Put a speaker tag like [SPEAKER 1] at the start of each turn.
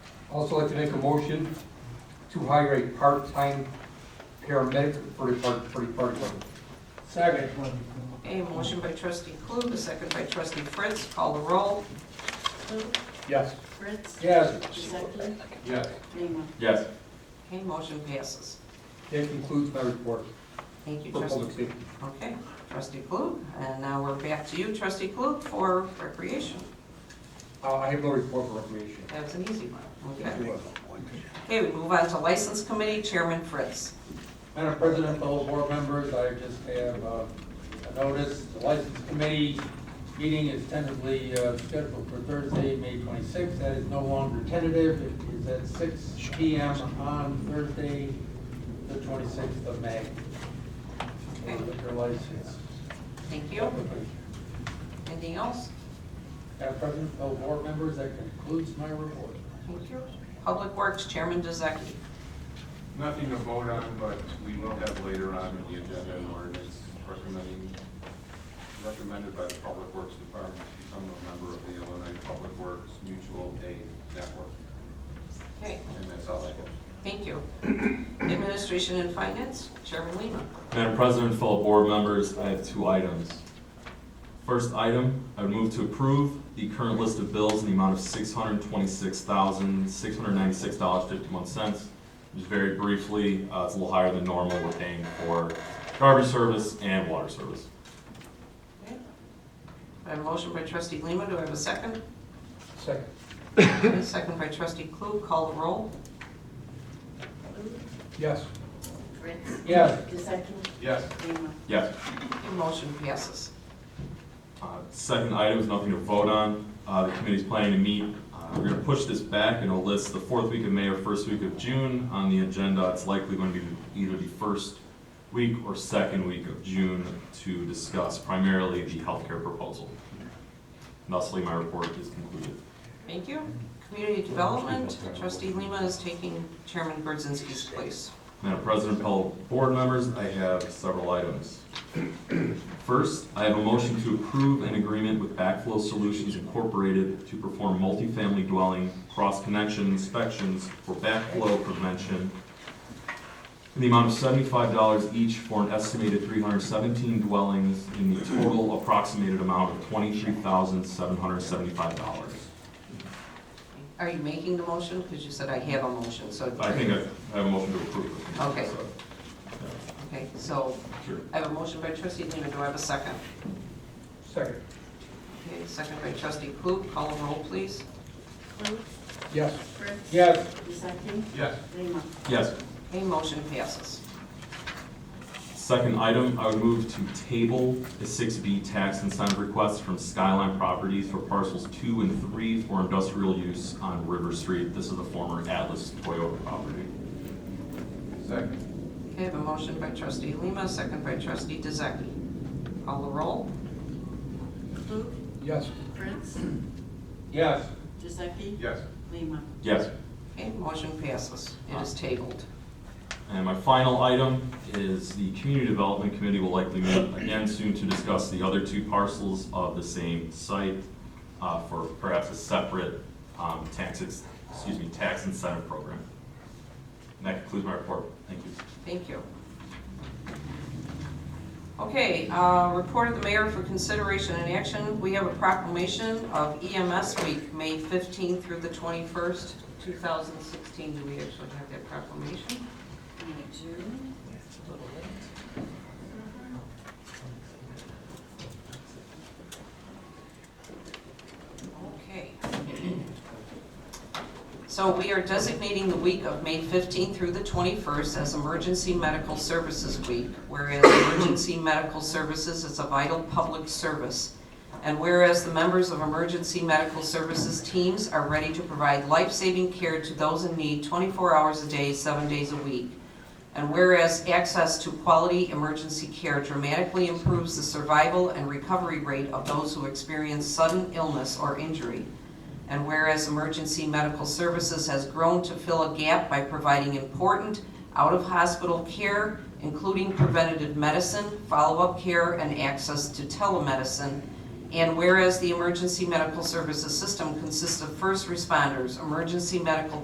[SPEAKER 1] Also like to make a motion to hire a part-time paramedic for the park, for the park department.
[SPEAKER 2] Second.
[SPEAKER 3] A motion by trustee Klug, a second by trustee Fritz, call the roll.
[SPEAKER 4] Klug,
[SPEAKER 2] Yes.
[SPEAKER 4] Fritz,
[SPEAKER 2] Yes.
[SPEAKER 4] Zeppelin,
[SPEAKER 2] Yes.
[SPEAKER 4] Lehman.
[SPEAKER 5] Yes.
[SPEAKER 3] Okay, motion passes.
[SPEAKER 1] That concludes my report
[SPEAKER 3] Thank you,
[SPEAKER 1] for
[SPEAKER 3] trustee.
[SPEAKER 1] public safety.
[SPEAKER 3] Okay, trustee Klug, and now we're back to you, trustee Klug, for recreation.
[SPEAKER 1] Uh, I have no report for recreation.
[SPEAKER 3] That was an easy one. Okay. Okay, we move on to license committee, Chairman Fritz.
[SPEAKER 2] Madam President, fellow board members, I just have uh, a notice, the license committee meeting is tentatively uh, scheduled for Thursday, May 26th. That is no longer tentative, it is at 6 PM on Thursday, the 26th of May.
[SPEAKER 3] Okay,
[SPEAKER 2] for Liquor license.
[SPEAKER 3] thank you. Anything else?
[SPEAKER 2] Madam President, fellow board members, that concludes my report.
[SPEAKER 3] Thank you. Public Works, Chairman Dezaki.
[SPEAKER 5] Nothing to vote on, but we will have later on in the agenda an ordinance recommending, recommended by the Public Works Department to become a member of the Illinois Public Works Mutual Aid Network.
[SPEAKER 3] Okay,
[SPEAKER 5] And that's all I have.
[SPEAKER 3] thank you. Administration and Finance, Chairman Lehman.
[SPEAKER 6] Madam President, fellow board members, I have two items. First item, I would move to approve the current list of bills in the amount of six hundred twenty-six thousand, six hundred ninety-six dollars, fifty-one cents. Just very briefly, uh, it's a little higher than normal, we're paying for garbage service and water service.
[SPEAKER 3] Okay. I have a motion by trustee Lehman, do I have a second?
[SPEAKER 1] Second.
[SPEAKER 3] A Second by trustee Klug, call the roll.
[SPEAKER 4] Klug,
[SPEAKER 1] Yes.
[SPEAKER 4] Fritz,
[SPEAKER 2] Yes.
[SPEAKER 4] Zeppelin,
[SPEAKER 5] Yes.
[SPEAKER 4] Lehman.
[SPEAKER 6] Yes.
[SPEAKER 3] The motion passes.
[SPEAKER 6] Uh, Second item is nothing to vote on. Uh, The committee's planning to meet. Uh, We're going to push this back and it'll list the fourth week of May or first week of June on the agenda. It's likely going to be either the first week or second week of June to discuss primarily the healthcare proposal. Thusly, my report is concluded.
[SPEAKER 3] Thank you. Community Development, trustee Lima is taking Chairman Brzezinski's place.
[SPEAKER 6] Madam President, fellow board members, I have several items. First, I have a motion to approve an agreement with Backflow Solutions Incorporated to perform multifamily dwelling cross-connection inspections for backflow prevention in the amount of seventy-five dollars each for an estimated three hundred seventeen dwellings in the total approximated amount of twenty-three thousand seven hundred seventy-five dollars.
[SPEAKER 3] Are you making the motion? Because you said I have a motion, so.
[SPEAKER 6] I think I I have a motion to approve.
[SPEAKER 3] Okay.
[SPEAKER 6] So,
[SPEAKER 3] Okay, so
[SPEAKER 6] yeah, Sure.
[SPEAKER 3] I have a motion by trustee Lima, do I have a second?
[SPEAKER 1] Second.
[SPEAKER 3] Okay, second by trustee Klug, call the roll, please.
[SPEAKER 4] Klug,
[SPEAKER 1] Yes.
[SPEAKER 4] Fritz,
[SPEAKER 2] Yes.
[SPEAKER 4] Zeppelin,
[SPEAKER 5] Yes.
[SPEAKER 4] Lehman.
[SPEAKER 6] Yes.
[SPEAKER 3] Okay, motion passes.
[SPEAKER 6] Second item, I would move to table the six B tax incentive request from Skyline Properties for parcels two and three for industrial use on River Street. This is the former Atlas Toyota property.
[SPEAKER 5] Second.
[SPEAKER 3] Okay, I have a motion by trustee Lima, second by trustee Dezaki. Call the roll.
[SPEAKER 4] Klug,
[SPEAKER 1] Yes.
[SPEAKER 4] Fritz,
[SPEAKER 2] Yes.
[SPEAKER 4] Zeppelin,
[SPEAKER 5] Yes.
[SPEAKER 4] Lehman.
[SPEAKER 6] Yes.
[SPEAKER 3] Okay, motion passes. It is tabled.
[SPEAKER 6] And my final item is the Community Development Committee will likely meet again soon to discuss the other two parcels of the same site uh, for perhaps a separate um, tax, ex- excuse me, tax incentive program. And that concludes my report. Thank you.
[SPEAKER 3] Thank you. Okay, uh, report of the mayor for consideration and action. We have a proclamation of EMS Week, May 15th through the 21st, 2016. Do we actually have that proclamation?
[SPEAKER 4] And June.
[SPEAKER 3] Okay. So we are designating the week of May 15th through the 21st as Emergency Medical Services Week, whereas emergency medical services is a vital public service, and whereas the members of emergency medical services teams are ready to provide life-saving care to those in need 24 hours a day, seven days a week, and whereas access to quality emergency care dramatically improves the survival and recovery rate of those who experience sudden illness or injury. And whereas emergency medical services has grown to fill a gap by providing important out-of-hospital care, including preventative medicine, follow-up care, and access to telemedicine. And whereas the emergency medical services system consists of first responders, emergency medical